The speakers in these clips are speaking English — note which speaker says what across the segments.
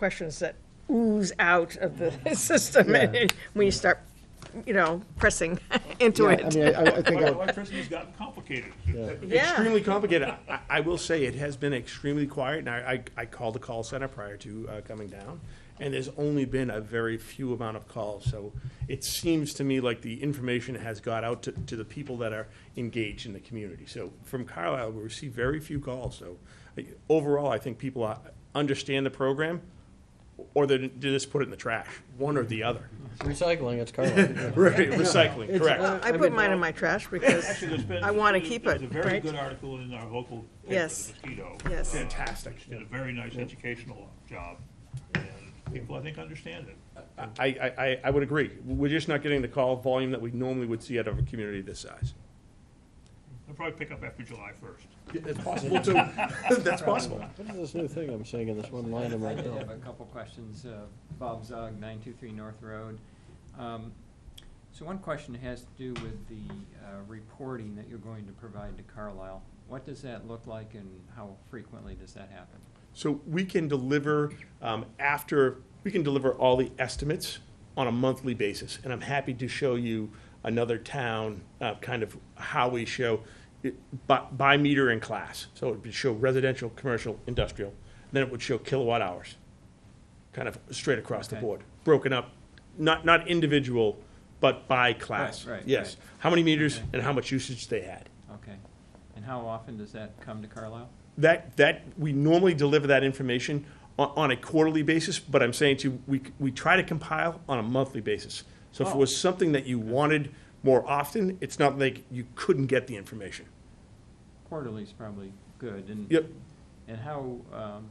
Speaker 1: questions that ooze out of the system
Speaker 2: Yeah.
Speaker 1: when you start, you know, pressing into
Speaker 2: Yeah, I
Speaker 1: it.
Speaker 2: mean, I, I- I think I would,
Speaker 3: Electricity's gotten complicated.
Speaker 1: Yeah.
Speaker 4: Extremely complicated. I, I will say it has been extremely quiet, and I, I, I called the call center prior to uh, coming down, and there's only been a very few amount of calls. So it seems to me like the information has got out to, to the people that are engaged in the community. So from Carlisle, we receive very few calls. So uh, overall, I think people uh, understand the program, or they they just put it in the trash, one or the other.
Speaker 2: recycling, it's Carlisle.
Speaker 4: Right, recycling,
Speaker 2: uh,
Speaker 4: correct.
Speaker 1: I put mine in my trash because
Speaker 3: Actually, there's been-
Speaker 1: I want to keep
Speaker 3: there's
Speaker 1: it,
Speaker 3: a very
Speaker 1: right?
Speaker 3: good article in our local paper,
Speaker 1: Yes.
Speaker 3: The Mosquito.
Speaker 1: Yes.
Speaker 3: uh,
Speaker 4: Fantastic.
Speaker 3: Did a very nice educational job, and people, I think, understand it.
Speaker 4: I, I, I- I would agree. We're just not getting the call volume that we normally would see out of a community this size.
Speaker 3: They'll probably pick up after July first.
Speaker 4: That's possible, too. That's possible.
Speaker 2: What is this new thing I'm seeing in this one line of my
Speaker 5: I did have a
Speaker 2: bill?
Speaker 5: couple questions. Uh, Bob Zog, 923 North Road. Um, So one question has to do with the uh, reporting that you're going to provide to Carlisle. What does that look like and how frequently does that happen?
Speaker 4: So we can deliver um, after, we can deliver all the estimates on a monthly basis. And I'm happy to show you another town, uh, kind of how we show it by, by meter in class. So it would show residential, commercial, industrial, then it would show kilowatt hours. kind of straight across the
Speaker 5: Okay.
Speaker 4: board, broken up, not, not individual, but by class.
Speaker 5: Right, right,
Speaker 4: Yes,
Speaker 5: right.
Speaker 4: how many meters
Speaker 5: Okay.
Speaker 4: and how much usage they had.
Speaker 5: Okay. And how often does that come to Carlisle?
Speaker 4: That, that, we normally deliver that information on, on a quarterly basis, but I'm saying to, you, we, we try to compile on a monthly basis. So if it
Speaker 5: Oh.
Speaker 4: was something that you wanted more often, it's not like you couldn't get the information.
Speaker 5: Quarterly is probably good. and-
Speaker 4: Yep.
Speaker 5: And how, um,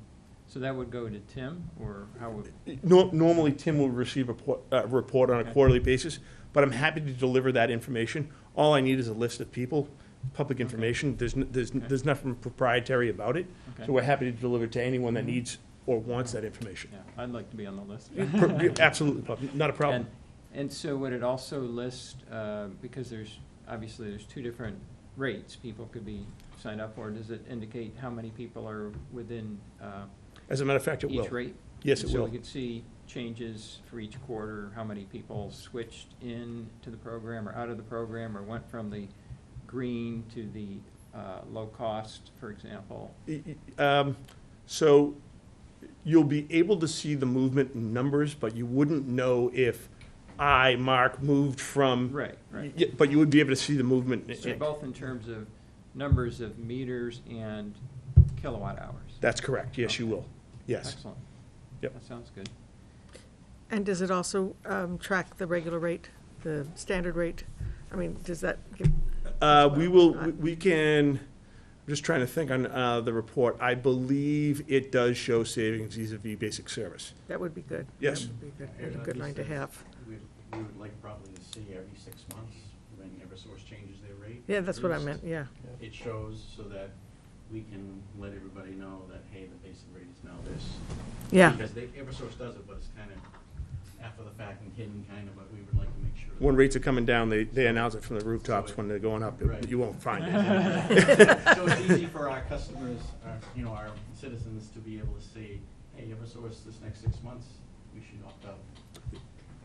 Speaker 5: so that would go to Tim or how would?
Speaker 4: Nor- Normally, Tim will receive a por- a report on a
Speaker 5: Okay.
Speaker 4: quarterly basis, but I'm happy to deliver that information. All I need is a list of people, public information. There's, n- there's, n-
Speaker 5: Okay.
Speaker 4: there's nothing proprietary about it.
Speaker 5: Okay. Mm-hmm.
Speaker 4: So we're happy to deliver to anyone that needs or wants that information.
Speaker 5: Yeah, I'd like to be on the list.
Speaker 4: Per- Absolutely, Bob, not a
Speaker 5: And,
Speaker 4: problem.
Speaker 5: and so would it also list, uh, because there's, obviously, there's two different rates people could be signed up for, does it indicate how many people are within uh,
Speaker 4: As a matter of fact, it
Speaker 5: each
Speaker 4: will.
Speaker 5: rate?
Speaker 4: Yes,
Speaker 5: And
Speaker 4: it
Speaker 5: So
Speaker 4: will.
Speaker 5: we could see changes for each quarter, how many people switched in to the program or out of the program, or went from the green to the uh, low cost, for example?
Speaker 4: Y- y- um, So you'll be able to see the movement in numbers, but you wouldn't know if I, Mark, moved from.
Speaker 5: Right, right.
Speaker 4: Y- But you would be able to see the movement. in-
Speaker 5: So both in terms of numbers of meters and kilowatt hours?
Speaker 4: That's correct, yes, you will, yes.
Speaker 5: Excellent.
Speaker 4: Yep.
Speaker 5: That sounds good.
Speaker 1: And does it also um, track the regular rate, the standard rate? I mean, does that give?
Speaker 4: Uh, we will, we- we can, I'm just trying to think on, uh, the report, I believe it does show savings vis-à-vis basic service.
Speaker 1: That would be good.
Speaker 4: Yes.
Speaker 1: That would be good- that'd be a good line to have.
Speaker 6: We we would like probably to see every six months when Eversource changes their rate.
Speaker 1: Yeah, that's what I meant, yeah.
Speaker 6: It shows so that we can let everybody know that, hey, the basic rate is now this.
Speaker 1: Yeah,
Speaker 6: Because they, Eversource does it, but it's kind of after the fact and hidden kind of, but we would like to make sure. that-
Speaker 4: When rates are coming down, they, they announce it from the rooftops when they're going up,
Speaker 6: Right.
Speaker 4: you won't find it.
Speaker 6: So it's easy for our customers, our, you know, our citizens to be able to say, hey, Eversource, this next six months, we should opt out.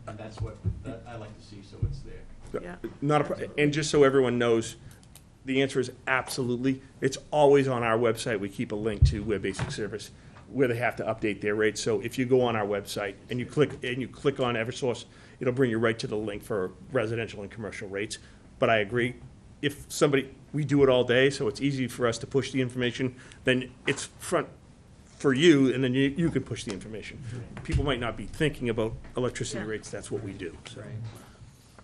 Speaker 6: And that's what, that I like to see, so it's there.
Speaker 1: yeah.
Speaker 4: Not a, pro- and just so everyone knows, the answer is absolutely, it's always on our website, we keep a link to where basic service, where they have to update their rates, so if you go on our website and you click, and you click on Eversource, it'll bring you right to the link for residential and commercial rates, but I agree, if somebody, we do it all day, so it's easy for us to push the information, then it's front for you, and then you, you can push the information. People might not be thinking about electricity
Speaker 1: Yeah.
Speaker 4: rates, that's what we do, so,
Speaker 5: Right.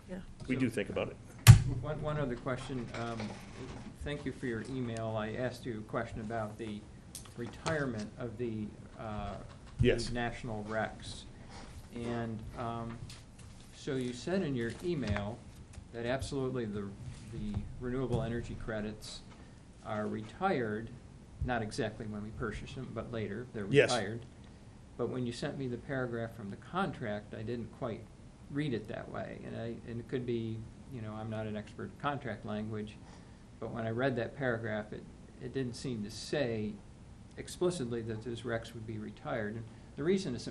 Speaker 1: Yeah.
Speaker 4: we do think about it.
Speaker 5: One, one other question. Um, Thank you for your email. I asked you a question about the retirement of the uh,
Speaker 4: Yes.
Speaker 5: the national recs. And um, so you said in your email that absolutely the, the renewable energy credits are retired, not exactly when we purchase them, but later, they're
Speaker 4: Yes.
Speaker 5: retired. But when you sent me the paragraph from the contract, I didn't quite read it that way. And I, and it could be, you know, I'm not an expert in contract language, but when I read that paragraph, it, it didn't seem to say explicitly that those recs would be retired. And The reason it's